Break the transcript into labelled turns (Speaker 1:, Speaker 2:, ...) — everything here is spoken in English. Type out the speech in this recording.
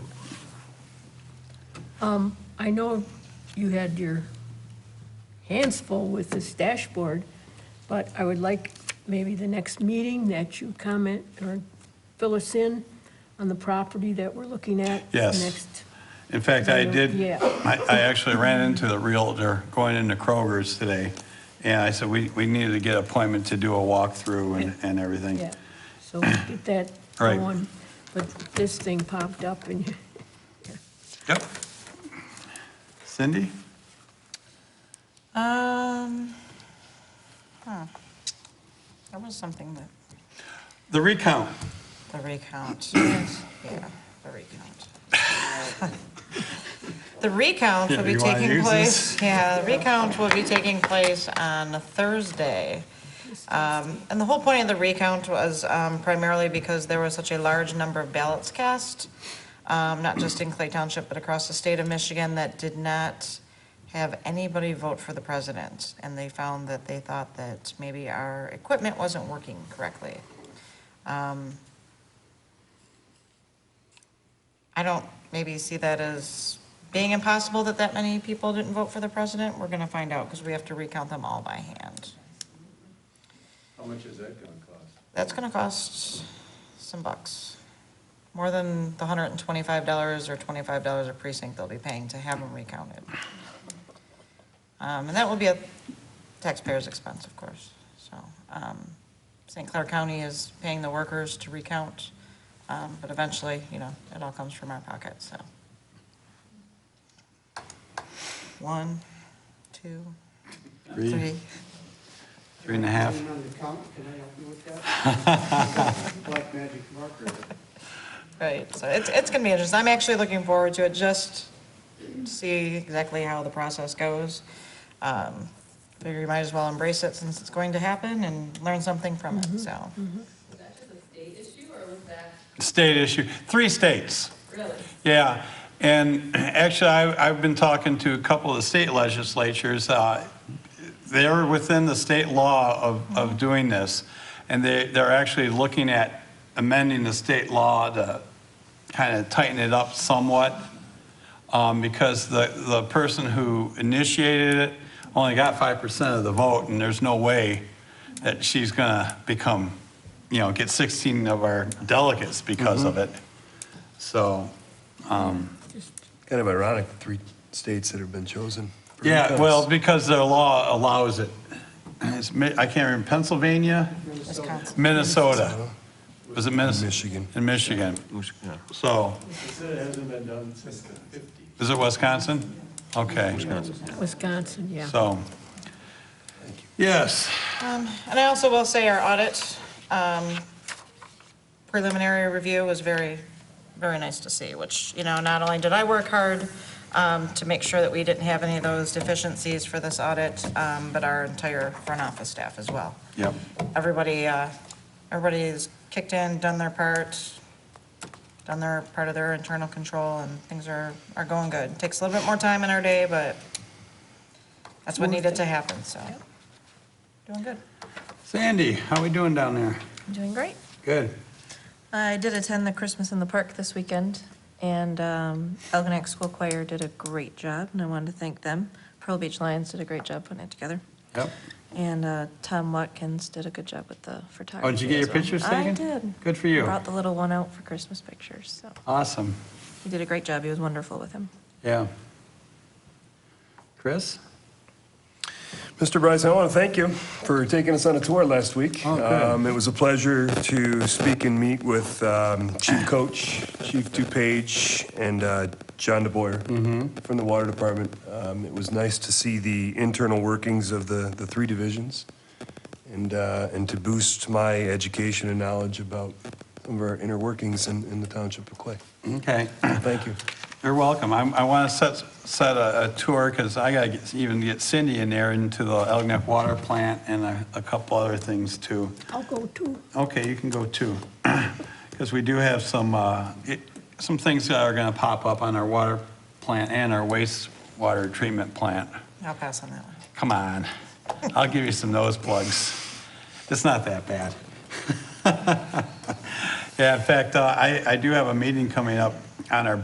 Speaker 1: Um, I know you had your hands full with this dashboard, but I would like maybe the next meeting that you comment or fill us in on the property that we're looking at.
Speaker 2: Yes.
Speaker 1: Next,
Speaker 2: In fact, I did,
Speaker 1: Yeah.
Speaker 2: I I actually ran into the realtor going into Kroger's today, and I said, we we needed to get an appointment to do a walkthrough and and everything.
Speaker 1: yeah. So get that
Speaker 2: Right.
Speaker 1: going. But this thing popped up and
Speaker 2: Yep. Cindy?
Speaker 3: Um, huh. There was something that,
Speaker 2: The recount.
Speaker 3: the recount, yeah, the recount. The recount will
Speaker 2: Yeah,
Speaker 3: be
Speaker 2: you wanna
Speaker 3: taking
Speaker 2: use
Speaker 3: place,
Speaker 2: this?
Speaker 3: yeah, the recount will be taking place on Thursday. Um, and the whole point of the recount was, um, primarily because there was such a large number of ballots cast, um, not just in Clay Township, but across the state of Michigan that did not have anybody vote for the president. And they found that they thought that maybe our equipment wasn't working correctly. Um, I don't maybe see that as being impossible that that many people didn't vote for the president. We're gonna find out because we have to recount them all by hand.
Speaker 4: How much is that gonna cost?
Speaker 3: That's gonna cost some bucks. More than the hundred and twenty-five dollars or twenty-five dollars a precinct they'll be paying to have them recounted. Um, and that will be a taxpayer's expense, of course, so, um, St. Clair County is paying the workers to recount, um, but eventually, you know, it all comes from our pocket, so. One, two,
Speaker 2: Three,
Speaker 3: three.
Speaker 2: three and a half.
Speaker 5: Put it on the count, can I help you with that? Black magic marker.
Speaker 3: Right, so it's, it's gonna be interesting. I'm actually looking forward to it, just to see exactly how the process goes. Um, Figure you might as well embrace it since it's going to happen and learn something from it, so.
Speaker 6: Was that just a state issue, or was that
Speaker 2: State issue, three states.
Speaker 6: really?
Speaker 2: Yeah, and actually, I- I've been talking to a couple of the state legislatures. uh, They're within the state law of, of doing this, and they, they're actually looking at amending the state law to kind of tighten it up somewhat, um, because the, the person who initiated it only got 5% of the vote, and there's no way that she's gonna become, you know, get 16 of our delegates because of it. So,
Speaker 4: Kind of ironic, the three states that have been chosen. for
Speaker 2: Yeah,
Speaker 4: recount.
Speaker 2: well, because their law allows it. It's, Mi- I can't remember, Pennsylvania,
Speaker 3: Wisconsin.
Speaker 2: Minnesota. Was it Minnesota?
Speaker 4: Michigan.
Speaker 2: In Michigan. So,
Speaker 4: It hasn't been done since the fifties.
Speaker 2: is it Wisconsin? Okay,
Speaker 1: Wisconsin, yeah.
Speaker 2: so. Yes,
Speaker 3: Um, And I also will say our audit um, preliminary review was very, very nice to see, which, you know, not only did I work hard um, to make sure that we didn't have any of those deficiencies for this audit, um, but our entire front office staff as well.
Speaker 2: yep,
Speaker 3: everybody, uh, everybody's kicked in, done their part, done their part of their internal control, and things are, are going good. Takes a little bit more time in our day, but that's what needed to happen, so. Doing good.
Speaker 2: Sandy, how we doing down there?
Speaker 7: Doing great.
Speaker 2: Good.
Speaker 7: I did attend the Christmas in the Park this weekend, and um, Algonac School Choir did a great job, and I wanted to thank them. Pearl Beach Lions did a great job putting it together,
Speaker 2: Yep.
Speaker 7: and uh, Tom Watkins did a good job with the photography.
Speaker 2: Oh, did you get
Speaker 7: as
Speaker 2: your
Speaker 7: well.
Speaker 2: pictures
Speaker 7: I
Speaker 2: taken?
Speaker 7: did.
Speaker 2: Good for you.
Speaker 7: Brought the little one out for Christmas pictures, so
Speaker 2: Awesome,
Speaker 7: he did a great job. He was wonderful with him.
Speaker 2: yeah. Chris?
Speaker 4: Mr. Bryson, I want to thank you for taking us on a tour last week.
Speaker 2: Oh, good.
Speaker 4: Um, It was a pleasure to speak and meet with um, Chief Coach, Chief DuPage, and uh, John
Speaker 2: Mm-hmm.
Speaker 4: DeBoyer from the Water Department. Um, It was nice to see the internal workings of the, the three divisions and, uh, and to boost my education and knowledge about some of our inner workings in, in the Township of Clay.
Speaker 2: Okay.
Speaker 4: Thank you.
Speaker 2: You're welcome. I'm, I want to set, set a, a tour because I got to even get Cindy in there into the Elginak Water Plant and a, a couple other things too.
Speaker 1: I'll go too.
Speaker 2: Okay, you can go too. Because we do have some, uh, it- some things that are going to pop up on our water plant and our wastewater treatment plant.
Speaker 3: I'll pass on that one.
Speaker 2: Come on. I'll give you some nose plugs. It's not that bad. Yeah, in fact, uh, I, I do have a meeting coming up on our